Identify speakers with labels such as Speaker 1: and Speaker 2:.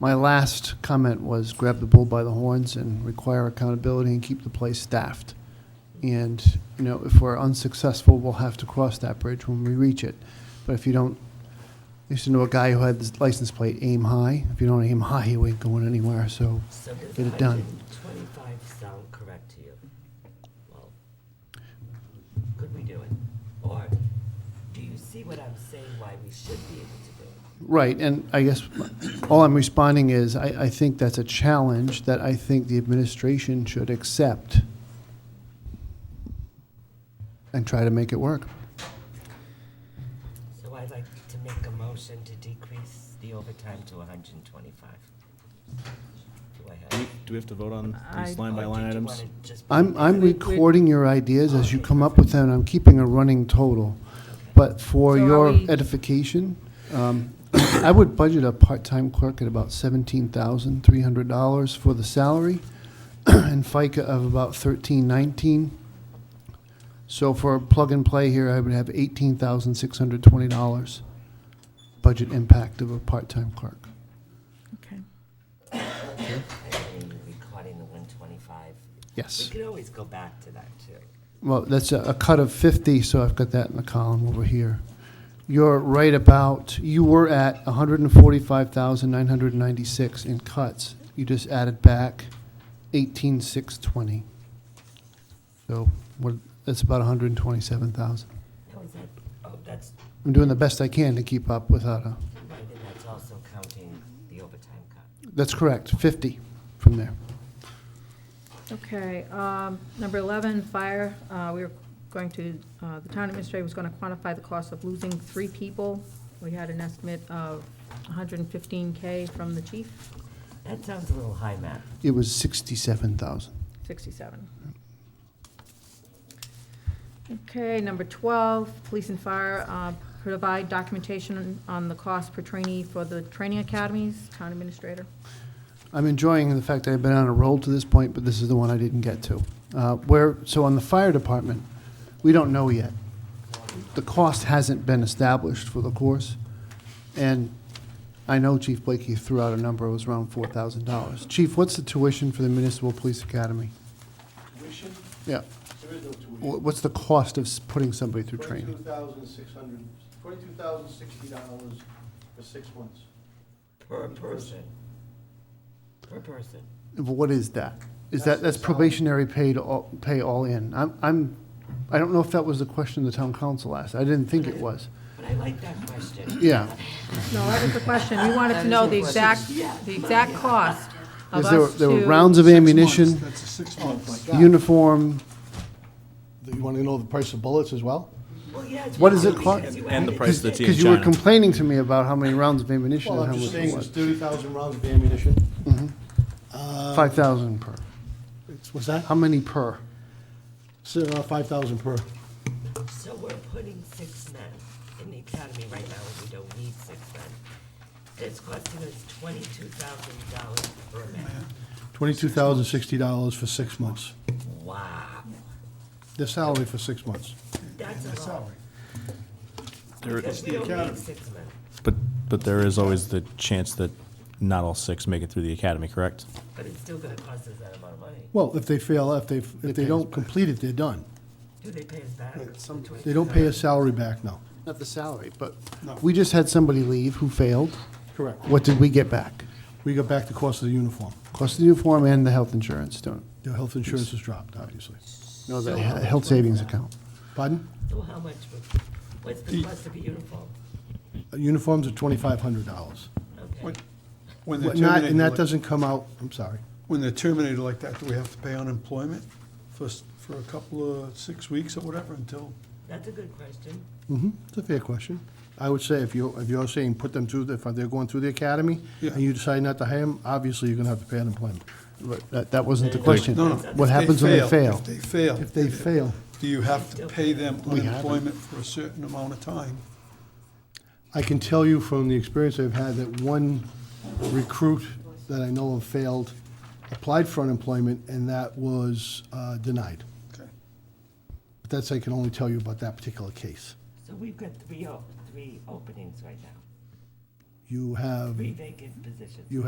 Speaker 1: My last comment was grab the bull by the horns and require accountability and keep the place staffed. And, you know, if we're unsuccessful, we'll have to cross that bridge when we reach it. But if you don't, I used to know a guy who had this license plate, aim high. If you don't aim high, you ain't going anywhere, so
Speaker 2: So does
Speaker 1: Get it done.
Speaker 2: 125 sound correct to you? Well, could we do it? Or do you see what I'm saying, why we should be able to do it?
Speaker 1: Right, and I guess all I'm responding is, I, I think that's a challenge that I think the administration should accept and try to make it work.
Speaker 2: So I'd like to make a motion to decrease the overtime to 125. Do I
Speaker 3: Do
Speaker 2: have?
Speaker 3: we- do we have to vote on these
Speaker 4: I-
Speaker 3: line by
Speaker 2: or
Speaker 3: line
Speaker 2: did you
Speaker 3: items?
Speaker 2: wanna just put
Speaker 1: I'm,
Speaker 2: it
Speaker 1: I'm
Speaker 2: together?
Speaker 1: recording your ideas as you come up with them, and I'm keeping a running total. But for
Speaker 4: So are
Speaker 1: your
Speaker 4: we-
Speaker 1: edification, um, I would budget a part-time clerk at about seventeen thousand three hundred dollars for the salary, and FICA of about thirteen nineteen. So for plug-and-play here, I would have eighteen thousand six hundred twenty dollars budget impact of a part-time clerk.
Speaker 4: Okay.
Speaker 2: I mean, Recording the 125. We
Speaker 1: Yes.
Speaker 2: could always go back to that, too.
Speaker 1: Well, that's a, a cut of 50, so I've got that in the column over here. You're right about, you were at 145,996 in cuts. You just added back 18,620. So what, that's about 127,000.
Speaker 2: Now, is that, oh, that's,
Speaker 1: I'm doing the best I can to keep up without a,
Speaker 2: right, and that's also counting the overtime cut.
Speaker 1: that's correct, 50 from there.
Speaker 4: Okay, um, number 11, fire, Uh, we were going to, uh, the town administrator was going to quantify the cost of losing three people. We had an estimate of 115K from the chief,
Speaker 2: That sounds a little high, Matt.
Speaker 1: It was 67,000.
Speaker 4: 67. Okay, number 12, police and fire uh, provide documentation on the cost per trainee for the training academies, town administrator.
Speaker 1: I'm enjoying the fact that I've been on a roll to this point, but this is the one I didn't get to. Uh, Where, so on the fire department, we don't know yet. The cost hasn't been established for the course, and I know Chief Blakey threw out a number, it was around four thousand dollars. Chief, what's the tuition for the Municipal Police Academy?
Speaker 5: tuition,
Speaker 1: Yeah,
Speaker 5: there is no tuition.
Speaker 1: Wh- what's the cost of s- putting somebody through training?
Speaker 5: Twenty-two thousand six hundred, twenty-two thousand sixty dollars for six months.
Speaker 2: Per person. Per person.
Speaker 1: What is that?
Speaker 5: That's
Speaker 1: Is that, that's
Speaker 5: the salary.
Speaker 1: probationary paid, all- pay all in? I'm, I'm, I don't know if that was the question the town council asked, I didn't think it was.
Speaker 2: But I like that question.
Speaker 1: Yeah.
Speaker 4: No, that was the question. We wanted to know the exact, the exact cost of
Speaker 1: Is there,
Speaker 4: us
Speaker 1: there were
Speaker 4: to...
Speaker 1: rounds of ammunition,
Speaker 5: That's a six-month like
Speaker 1: uniform,
Speaker 5: You want to know the price of bullets as well?
Speaker 2: Well, yeah. it's
Speaker 1: What does it
Speaker 2: because
Speaker 1: cost?
Speaker 2: you
Speaker 3: And the
Speaker 2: added
Speaker 3: price of the
Speaker 2: it.
Speaker 3: tea.
Speaker 1: because you were
Speaker 3: China.
Speaker 1: complaining to me about how many rounds of ammunition
Speaker 5: Well,
Speaker 1: and
Speaker 5: I'm
Speaker 1: how
Speaker 5: just
Speaker 1: much
Speaker 5: saying,
Speaker 1: it
Speaker 5: it's
Speaker 1: was.
Speaker 5: thirty thousand rounds of ammunition.
Speaker 1: Five thousand per.
Speaker 5: What's that?
Speaker 1: How many per?
Speaker 6: uh,
Speaker 5: Five thousand per.
Speaker 2: So we're putting six men in the academy right now, and we don't need six men. It's costing us twenty-two thousand dollars per man.
Speaker 5: Twenty-two thousand sixty dollars for six months.
Speaker 2: Wow,
Speaker 5: Their salary for six months.
Speaker 2: that's a lot.
Speaker 3: There-
Speaker 2: Because we don't need six men.
Speaker 3: But, but there is always the chance that not all six make it through the academy, correct?
Speaker 2: But it's still gonna cost us that amount of money.
Speaker 6: Well, if they fail, if they, if they don't complete it, they're done.
Speaker 2: Do they pay us back? The
Speaker 6: They don't pay a salary back, no.
Speaker 1: Not the salary, but
Speaker 6: No.
Speaker 1: we just had somebody leave who failed.
Speaker 6: Correct.
Speaker 1: What did we get back?
Speaker 6: We got back the cost of the uniform.
Speaker 1: Cost of the uniform and the health insurance, don't,
Speaker 6: Their health insurance has dropped, obviously.
Speaker 1: no, the he- health savings account.
Speaker 6: Pardon?
Speaker 2: So how much, would- what's the cost of a uniform?
Speaker 6: Uh, Uniforms are twenty-five hundred dollars.
Speaker 2: Okay.
Speaker 7: What- When they're
Speaker 6: Not, and that
Speaker 7: terminated, like-
Speaker 6: doesn't come out, I'm sorry.
Speaker 7: when they're terminated like that, do we have to pay unemployment for, s- for a couple of, six weeks or whatever until?
Speaker 2: That's a good question.
Speaker 6: hmm it's a fair question. I would say if you, if you're saying put them through, the- if they're going through the academy,
Speaker 7: Yeah.
Speaker 6: and you decide not to hire them, obviously you're gonna have to pay unemployment.
Speaker 1: But That, that wasn't the question.
Speaker 7: No, no. if
Speaker 1: What happens when they fail?
Speaker 7: If they fail.
Speaker 6: If they fail,
Speaker 7: Do you have to pay them
Speaker 1: We haven't.
Speaker 7: unemployment for a certain amount of time?
Speaker 6: I can tell you from the experience I've had that one recruit that I know of failed, applied for unemployment, and that was uh, denied.
Speaker 7: Okay.
Speaker 6: But that's, I can only tell you about that particular case.
Speaker 2: So we've got three, o- three openings right now,
Speaker 6: You have
Speaker 2: three vacant positions.
Speaker 6: You